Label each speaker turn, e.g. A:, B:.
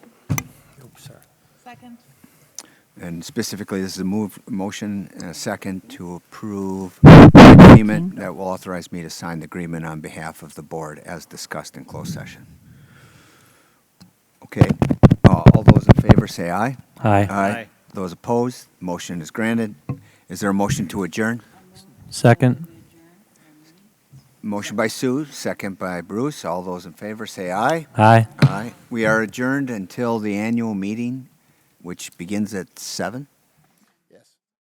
A: Second.
B: And specifically, this is a move, motion and a second to approve the agreement that will authorize me to sign the agreement on behalf of the board as discussed in closed session. Okay, uh, all those in favor say aye.
C: Aye.
D: Aye.
B: Those opposed, motion is granted. Is there a motion to adjourn?
C: Second.
B: Motion by Sue, second by Bruce. All those in favor say aye.
C: Aye.
B: Aye. We are adjourned until the annual meeting, which begins at seven.